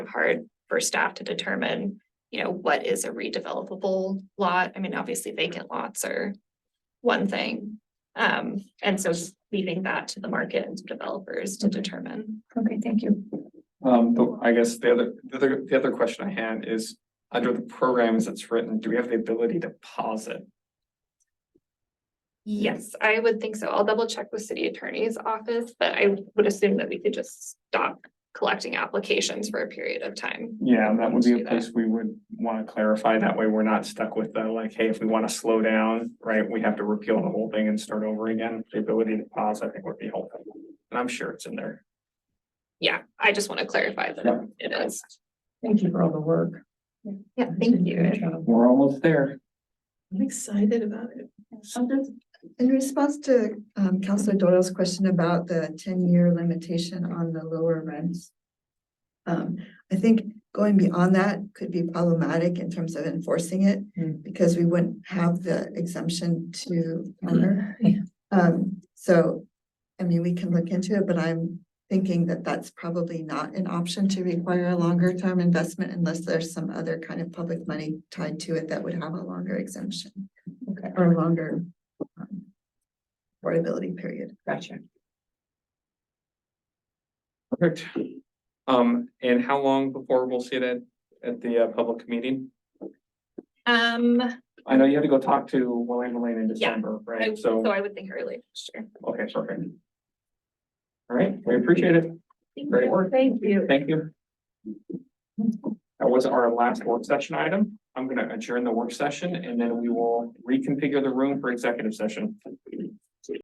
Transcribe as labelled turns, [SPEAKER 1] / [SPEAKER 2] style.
[SPEAKER 1] hard for staff to determine, you know, what is a redevelopable lot? I mean, obviously vacant lots are one thing. Um, and so just leaving that to the market and to developers to determine.
[SPEAKER 2] Okay, thank you.
[SPEAKER 3] Um, but I guess the other, the other, the other question I had is, under the programs that's written, do we have the ability to pause it?
[SPEAKER 1] Yes, I would think so. I'll double check with city attorney's office, but I would assume that we could just stop collecting applications for a period of time.
[SPEAKER 3] Yeah, that would be
[SPEAKER 1] Do
[SPEAKER 3] a
[SPEAKER 1] that.
[SPEAKER 3] place we would wanna clarify, that way we're not stuck with the, like, hey, if we wanna slow down, right, we have to repeal the whole thing and start over again, the ability to pause, I think would be helpful. And I'm sure it's in there.
[SPEAKER 1] Yeah, I just want to clarify that
[SPEAKER 3] Yeah.
[SPEAKER 1] it is.
[SPEAKER 2] Thank you for all the work.
[SPEAKER 1] Yeah, thank you.
[SPEAKER 3] We're almost there.
[SPEAKER 2] I'm excited about it.
[SPEAKER 4] Um, just In response to um Counselor Doyle's question about the ten-year limitation on the lower rents. Um, I think going beyond that could be problematic in terms of enforcing it.
[SPEAKER 2] Hmm.
[SPEAKER 4] Because we wouldn't have the exemption to owner.
[SPEAKER 2] Hmm. Yeah.
[SPEAKER 4] Um, so, I mean, we can look into it, but I'm thinking that that's probably not an option to require a longer term investment. Unless there's some other kind of public money tied to it that would have a longer exemption
[SPEAKER 2] Okay,
[SPEAKER 4] or longer um, affordability period.
[SPEAKER 2] gotcha.
[SPEAKER 3] Perfect. Um, and how long before we'll see it at, at the, uh, public meeting?
[SPEAKER 1] Um,
[SPEAKER 3] I know you had to go talk to William Lane in
[SPEAKER 1] Yeah.
[SPEAKER 3] December,
[SPEAKER 1] I-
[SPEAKER 3] right?
[SPEAKER 1] so
[SPEAKER 3] So,
[SPEAKER 1] I would think early next year.
[SPEAKER 3] okay, perfect. All right, we appreciate it. Great work.
[SPEAKER 1] Thank you.
[SPEAKER 3] Thank you. That was our last work session item. I'm gonna adjourn the work session and then we will reconfigure the room for executive session.